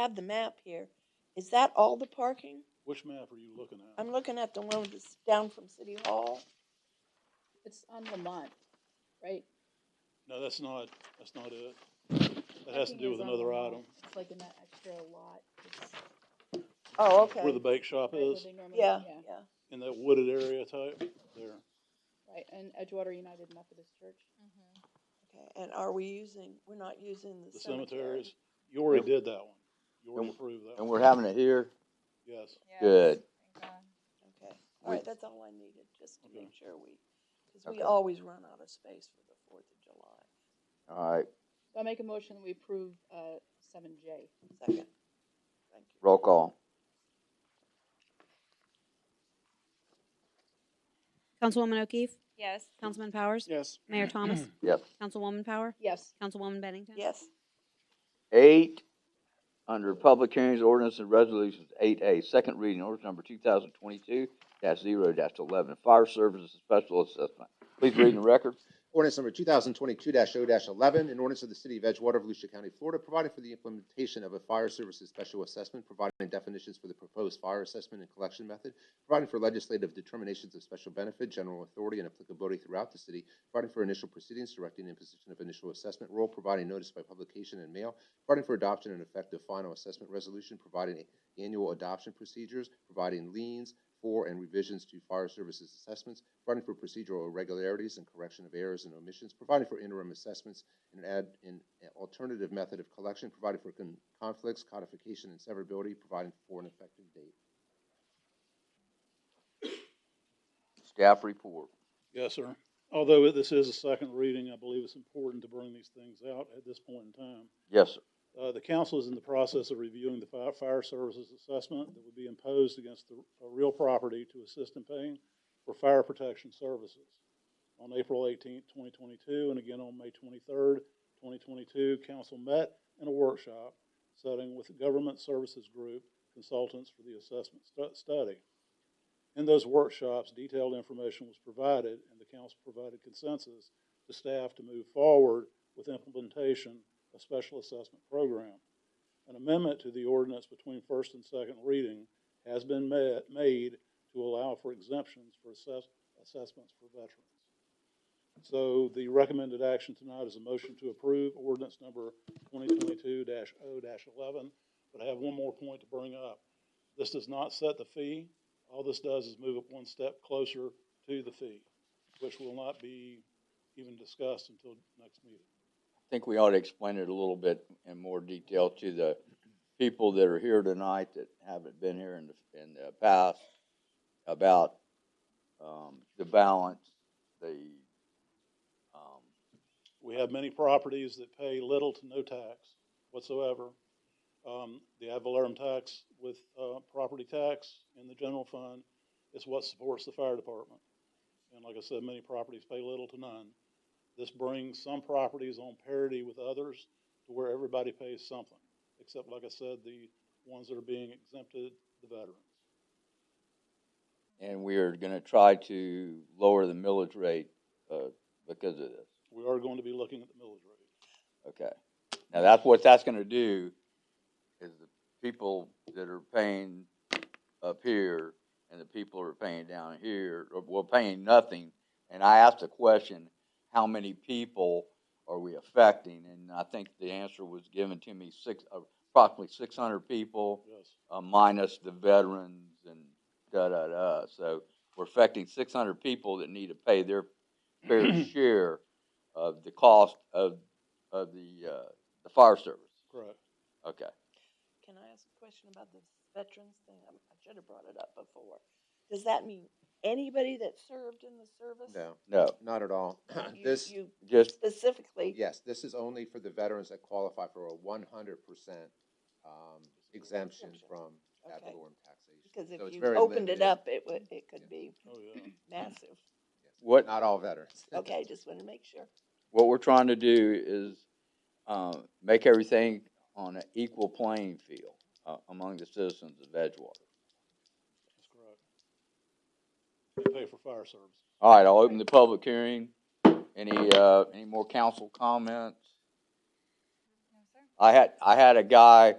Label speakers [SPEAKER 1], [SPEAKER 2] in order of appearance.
[SPEAKER 1] have the map here. Is that all the parking?
[SPEAKER 2] Which map are you looking at?
[SPEAKER 1] I'm looking at the one that's down from City Hall.
[SPEAKER 3] It's on Lamont, right?
[SPEAKER 2] No, that's not, that's not it. That has to
[SPEAKER 3] Parking
[SPEAKER 2] do
[SPEAKER 3] is
[SPEAKER 2] with
[SPEAKER 3] on
[SPEAKER 2] another
[SPEAKER 3] Lamont.
[SPEAKER 2] item.
[SPEAKER 3] It's like in that extra lot. It's right
[SPEAKER 1] Oh,
[SPEAKER 2] Where the
[SPEAKER 1] okay.
[SPEAKER 2] bake shop
[SPEAKER 3] where
[SPEAKER 2] is,
[SPEAKER 3] they normally-
[SPEAKER 1] Yeah, yeah.
[SPEAKER 2] in that wooded area type, there.
[SPEAKER 3] Right, and Edgewater United Methodist Church.
[SPEAKER 1] Okay, and are we using, we're not using the
[SPEAKER 2] The
[SPEAKER 1] cemetery?
[SPEAKER 2] cemeteries, you already
[SPEAKER 4] Yep.
[SPEAKER 2] did that one. You already
[SPEAKER 4] And-
[SPEAKER 2] approved that
[SPEAKER 4] And
[SPEAKER 2] one.
[SPEAKER 4] we're having it here?
[SPEAKER 2] Yes.
[SPEAKER 5] Yes,
[SPEAKER 4] Good.
[SPEAKER 5] thank God.
[SPEAKER 1] Okay, all right,
[SPEAKER 4] We-
[SPEAKER 1] that's all I needed, just to
[SPEAKER 2] Okay.
[SPEAKER 1] make sure we, because we
[SPEAKER 4] Okay.
[SPEAKER 1] always run out of space for the Fourth of July.
[SPEAKER 4] All right,
[SPEAKER 3] So I make a motion that we approve, uh, seven J.
[SPEAKER 1] Second. Thank you.
[SPEAKER 4] roll call.
[SPEAKER 6] Councilwoman O'Keefe,
[SPEAKER 5] Yes,
[SPEAKER 6] Councilman Powers,
[SPEAKER 2] Yes.
[SPEAKER 6] Mayor Thomas,
[SPEAKER 4] Yes.
[SPEAKER 6] Councilwoman Power,
[SPEAKER 3] Yes,
[SPEAKER 6] Councilwoman Bennington.
[SPEAKER 1] Yes,
[SPEAKER 4] Eight, under public hearings, ordinance and resolutions, eight A, second reading, ordinance number two thousand twenty-two dash zero dash eleven, fire services special assessment. Please read in the record.
[SPEAKER 7] Ordinance number two thousand twenty-two 0 eleven, an ordinance of the city of Edgewater, Volusia County, Florida, providing for the implementation of a fire services special assessment, providing definitions for the proposed fire assessment and collection method, providing for legislative determinations of special benefit, general authority, and applicability throughout the city, providing for initial proceedings, directing imposition of initial assessment rule, providing notice by publication and mail, providing for adoption and effect of final assessment resolution, providing annual adoption procedures, providing liens for and revisions to fire services assessments, providing for procedural irregularities and correction of errors and omissions, providing for interim assessments and add an alternative method of collection, providing for con- conflicts, codification, and severability, providing for an effective date.
[SPEAKER 4] Staff report.
[SPEAKER 2] Yes, sir. Although this is a second reading, I believe it's important to bring these things out at this point in time.
[SPEAKER 4] Yes, sir.
[SPEAKER 2] Uh, the council is in the process of reviewing the fire, fire services assessment that would be imposed against the, a real property to assist in paying for fire protection services. On April eighteenth, twenty twenty-two, and again on May twenty-third, twenty twenty-two, council met in a workshop setting with the Government Services Group consultants for the assessment stu- study. In those workshops, detailed information was provided, and the council provided consensus to staff to move forward with implementation a special assessment program. An amendment to the ordinance between first and second reading has been ma- made to allow for exemptions for assess, assessments for veterans. So the recommended action tonight is a motion to approve ordinance number twenty twenty-two 0 eleven. But I have one more point to bring up. This does not set the fee. All this does is move it one step closer to the fee, which will not be even discussed until next meeting.
[SPEAKER 4] I think we ought to explain it a little bit in more detail to the people that are here tonight that haven't been here in the, in the past about, um, the balance, the, um,
[SPEAKER 2] We have many properties that pay little to no tax whatsoever. Um, the ad valorem tax with, uh, property tax in the general fund is what supports the fire department. And like I said, many properties pay little to none. This brings some properties on parity with others to where everybody pays something, except, like I said, the ones that are being exempted, the veterans.
[SPEAKER 4] and we are gonna try to lower the millage rate, uh, because of this,
[SPEAKER 2] We are going to be looking at the millage rate.
[SPEAKER 4] okay? Now, that's what that's gonna do, is the people that are paying up here and the people who are paying down here, or, well, paying nothing, and I asked a question, how many people are we affecting? And I think the answer was given to me, six, uh, approximately six hundred people,
[SPEAKER 2] Yes,
[SPEAKER 4] uh, minus the veterans and da da da. So we're affecting 600 people that need to pay their fair share of the cost of of the uh, the fire service.
[SPEAKER 2] correct.
[SPEAKER 4] Okay.
[SPEAKER 1] can I ask a question about this veterans thing? I I should have brought it up before. Does that mean anybody that served in the service?
[SPEAKER 7] No,
[SPEAKER 4] No,
[SPEAKER 7] not at all.
[SPEAKER 1] You-
[SPEAKER 7] This,
[SPEAKER 1] You
[SPEAKER 4] just
[SPEAKER 1] specifically?
[SPEAKER 7] yes, this is only for the veterans that qualify for a one hundred percent um, exemption
[SPEAKER 1] Exemption.
[SPEAKER 7] from ad
[SPEAKER 1] Okay.
[SPEAKER 7] valorem taxation.
[SPEAKER 1] Because if
[SPEAKER 7] So it's
[SPEAKER 1] you
[SPEAKER 7] very
[SPEAKER 1] opened it
[SPEAKER 7] limited.
[SPEAKER 1] up, it would, it could
[SPEAKER 7] Yeah.
[SPEAKER 1] be
[SPEAKER 2] Oh, yeah.
[SPEAKER 1] massive.
[SPEAKER 7] Yes.
[SPEAKER 4] What-
[SPEAKER 7] Not all veterans.
[SPEAKER 1] Okay, just wanted to make sure.
[SPEAKER 4] what we're trying to do is um, make everything on an equal playing field uh, among the citizens of Edgewater.
[SPEAKER 2] That's correct. They pay for fire service.
[SPEAKER 4] All right, I'll open the public hearing. Any uh, any more council comments?
[SPEAKER 5] no, sir.
[SPEAKER 4] I had I had a guy